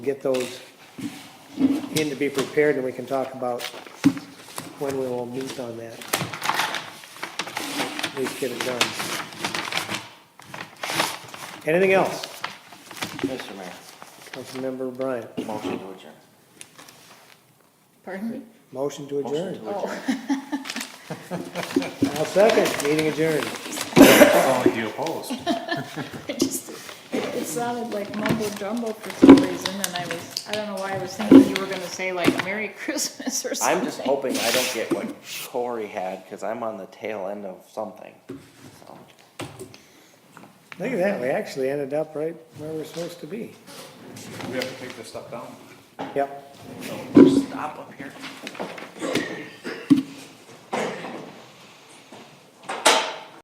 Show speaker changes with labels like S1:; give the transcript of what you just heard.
S1: get those in to be prepared, and we can talk about when we will meet on that. At least get it done. Anything else,
S2: Mr. Mayor,
S1: Councilmember Bryant?
S2: motion to adjourn.
S3: Pardon me? Oh.
S1: Motion to
S2: Motion
S1: adjourn.
S2: to adjourn.
S1: I'll second, meeting adjourned.
S4: Oh, you opposed.
S3: I just, it it sounded like mumbo jumbo for some reason, and I was, I don't know why I was thinking you were gonna say like Merry Christmas or something.
S2: I'm just hoping I don't get what Corey had, because I'm on the tail end of something. So,
S1: Look at that, we actually ended up right where we're supposed to be.
S4: We have to take this stuff down.
S1: Yep,
S2: Stop up here.